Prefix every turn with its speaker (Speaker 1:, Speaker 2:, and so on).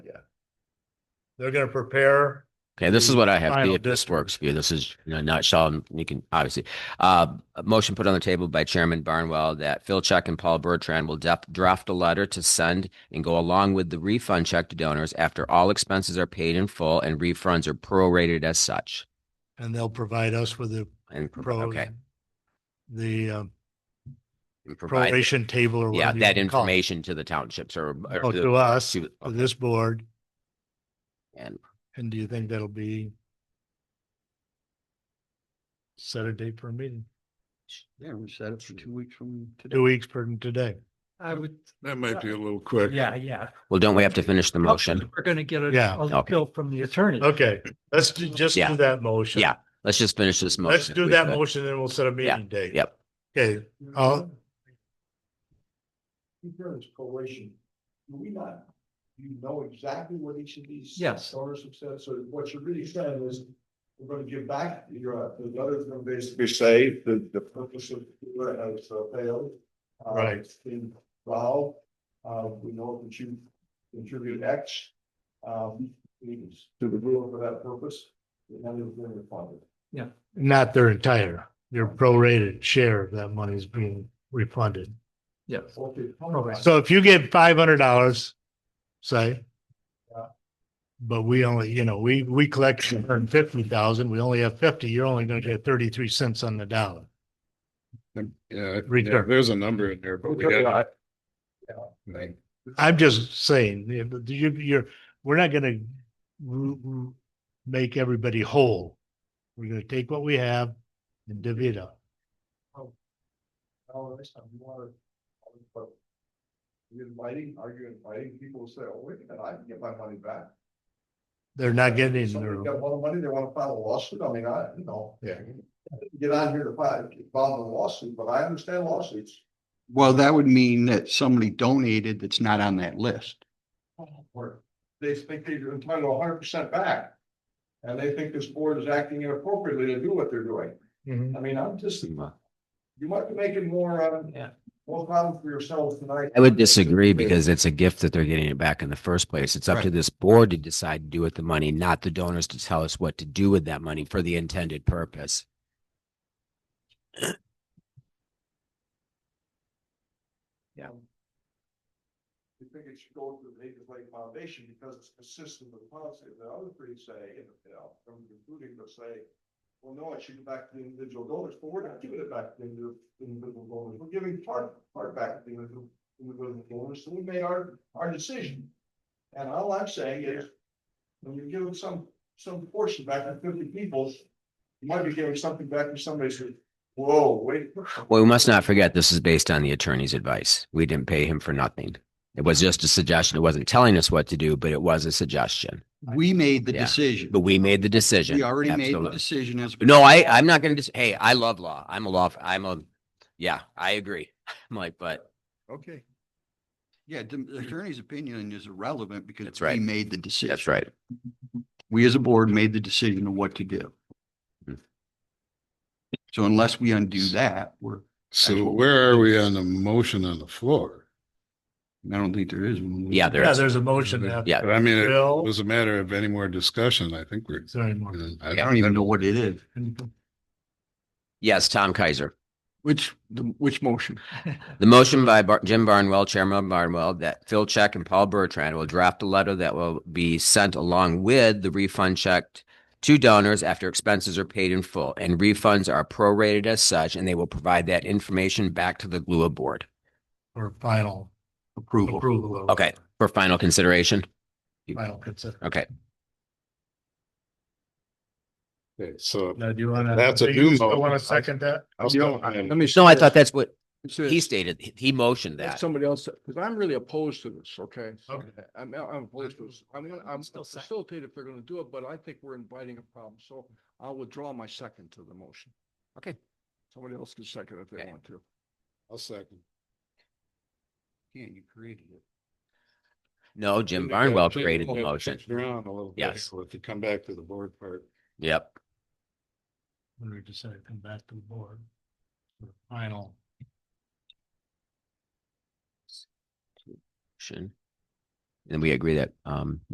Speaker 1: They're gonna prepare.
Speaker 2: Okay, this is what I have.
Speaker 1: Final
Speaker 2: If this
Speaker 1: district.
Speaker 2: works for you, this is in a nutshell. and You can obviously, uh, a motion put on the table by Chairman Barnwell that Phil Check and Paul Bertrand will def- draft a letter to send and go along with the refund check to donors after all expenses are paid in full and refunds are prorated as such.
Speaker 1: And they'll provide us with the
Speaker 2: And pro-
Speaker 1: pro.
Speaker 2: okay,
Speaker 1: The um,
Speaker 2: and provide
Speaker 1: proration table or
Speaker 2: yeah
Speaker 1: whatever. you
Speaker 2: that
Speaker 1: wanna call it.
Speaker 2: information to the townships or, or
Speaker 1: Oh,
Speaker 2: the-
Speaker 1: To us,
Speaker 2: to-
Speaker 1: to this board.
Speaker 2: and
Speaker 1: And do you think that'll be? Set a date for a meeting,
Speaker 3: Yeah, we set it for two weeks from today.
Speaker 1: two weeks from today.
Speaker 4: I would, uh,
Speaker 3: That might be a little quick.
Speaker 4: yeah, yeah.
Speaker 2: well, don't we have to finish the motion?
Speaker 4: We're gonna get
Speaker 1: Yeah.
Speaker 4: a, a
Speaker 2: Okay.
Speaker 4: bill from the attorney.
Speaker 1: Okay, let's do- just
Speaker 2: Yeah.
Speaker 1: do that motion.
Speaker 2: Yeah, let's just finish this motion.
Speaker 1: Let's do
Speaker 2: We
Speaker 1: that
Speaker 2: could.
Speaker 1: motion and we'll set a meeting date.
Speaker 2: Yep.
Speaker 1: Okay, uh,
Speaker 5: You've done this proration, do we not, you know exactly what each of these.
Speaker 4: Yes.
Speaker 5: Owners have said, so what you're really saying is, we're gonna give back, your uh, the others are gonna basically say, the, the purpose of, what has uh, failed. uh,
Speaker 1: Right.
Speaker 5: it's Been involved, uh, we know that you contributed X, um, means to the rule for that purpose, and then it's been refunded.
Speaker 1: not their entire, their prorated share of that money is being refunded.
Speaker 4: Yes.
Speaker 5: Okay.
Speaker 1: So if you get five hundred dollars, say.
Speaker 5: Yeah.
Speaker 1: But we only, you know, we, we collect one hundred and fifty thousand, we only have fifty, you're only gonna get thirty-three cents on the dollar.
Speaker 3: Yeah,
Speaker 1: Return.
Speaker 3: uh, there's a number in there, but we got. Right.
Speaker 1: I'm just saying, yeah, but you, you're, we're not gonna r- r- make everybody whole. We're gonna take what we have and divvy it up.
Speaker 5: Oh, next time you wanna. but You're inviting, are you inviting people to say, oh, wait a minute, I can get my money back?
Speaker 1: They're not getting
Speaker 5: Somebody
Speaker 1: their,
Speaker 5: got a lot of money, they wanna file a lawsuit, I mean, I, you know.
Speaker 1: Yeah.
Speaker 5: I didn't Get on here to file, file a lawsuit, but I understand lawsuits.
Speaker 3: Well, that would mean that somebody donated that's not on that list.
Speaker 5: Where they think they're entitled hundred percent back. And they think this board is acting inappropriately to do what they're doing.
Speaker 1: Mhm.
Speaker 5: I mean, I'm just,
Speaker 2: Well,
Speaker 5: you might be making more, um,
Speaker 4: Yeah.
Speaker 5: more problems for yourselves tonight.
Speaker 2: I would disagree because it's a gift that they're getting it back in the first place. It's up to
Speaker 1: Right.
Speaker 2: this board to decide to do with the money, not the donors to tell us what to do with that money for the intended purpose.
Speaker 5: We think it should go to the Native Lake Foundation because it's consistent with policy. The other three say, and, you know, from including they'll say, well, no, it should go back to the individual donors, but we're not giving it back to the indi- individual donors. We're giving part, part back to the individual individual donors, so we made our, our decision. And all I'm saying is, when you give some, some portion back to fifty people, you might be giving something back to somebody who, whoa, wait.
Speaker 2: Well, we must not forget this is based on the attorney's advice. We didn't pay him for nothing. It was just a suggestion. It wasn't telling us what to do, but it was a suggestion.
Speaker 3: We made the
Speaker 2: Yeah,
Speaker 3: decision.
Speaker 2: But we made the decision.
Speaker 3: We already made the
Speaker 2: Absolutely.
Speaker 3: decision as.
Speaker 2: No, I, I'm not going to just, hey, I love law. I'm a law, f- I'm a, yeah, I agree. I'm like, but
Speaker 3: Okay. Yeah, the the attorney's opinion is irrelevant because.
Speaker 2: Mm-hmm. That's right.
Speaker 3: We made the decision.
Speaker 2: that's right.
Speaker 3: We as a board made the decision of what to do.
Speaker 2: Mhm.
Speaker 3: So unless we undo that, we're,
Speaker 6: So
Speaker 3: Actual-
Speaker 6: where are we on the motion on the floor?
Speaker 3: I don't think there is. one.
Speaker 2: Yeah, there
Speaker 1: yeah,
Speaker 2: is.
Speaker 1: there's a motion now.
Speaker 2: Yeah.
Speaker 6: But I mean, it
Speaker 1: Bill?
Speaker 6: was a matter of any more discussion. I think we're.
Speaker 1: Sorry, Mark.
Speaker 3: I don't even know what it is.
Speaker 2: Yes, Tom Kaiser.
Speaker 3: Which, the which motion?
Speaker 2: The motion by Bar- Jim Barnwell, Chairman Barnwell, that Phil Check and Paul Bertrand will draft a letter that will be sent along with the refund check to donors after expenses are paid in full and refunds are prorated as such, and they will provide that information back to the GLUA board.
Speaker 1: Or final
Speaker 3: Approval.
Speaker 1: approval. of-
Speaker 2: Okay, for final consideration.
Speaker 1: Final consent.
Speaker 2: Okay,
Speaker 6: Okay, So
Speaker 1: Now, do you wanna?
Speaker 6: That's a
Speaker 1: do
Speaker 6: new
Speaker 1: you still
Speaker 6: motion.
Speaker 1: Wanna second that?
Speaker 6: I'll
Speaker 7: Yeah,
Speaker 6: still,
Speaker 7: let me.
Speaker 2: no,
Speaker 7: say
Speaker 2: I
Speaker 7: this.
Speaker 2: thought that's what
Speaker 7: Let me say
Speaker 2: he
Speaker 7: this.
Speaker 2: stated. He- He motioned
Speaker 7: Let
Speaker 2: that.
Speaker 7: Somebody else, because I'm really opposed to this, okay?
Speaker 1: Okay.
Speaker 7: I'm, I'm opposed to this. I'm, gonna- I'm
Speaker 4: Still second.
Speaker 7: facilitated if they're gonna do it, but I think we're inviting a problem, so I'll withdraw my second to the motion.
Speaker 2: Okay.
Speaker 7: Somebody else can second if they
Speaker 2: Okay.
Speaker 7: want to.
Speaker 6: I'll second.
Speaker 3: Yeah, you created it.
Speaker 2: No, Jim
Speaker 6: Maybe
Speaker 2: Barnwell
Speaker 6: change-
Speaker 2: created the
Speaker 6: change
Speaker 2: motion.
Speaker 6: things Around a little bit.
Speaker 2: Yes.
Speaker 6: So If you come back to the board part.
Speaker 2: Yep.
Speaker 1: When we decide to come back to the board. for Final.
Speaker 2: Motion. And we agree that, um,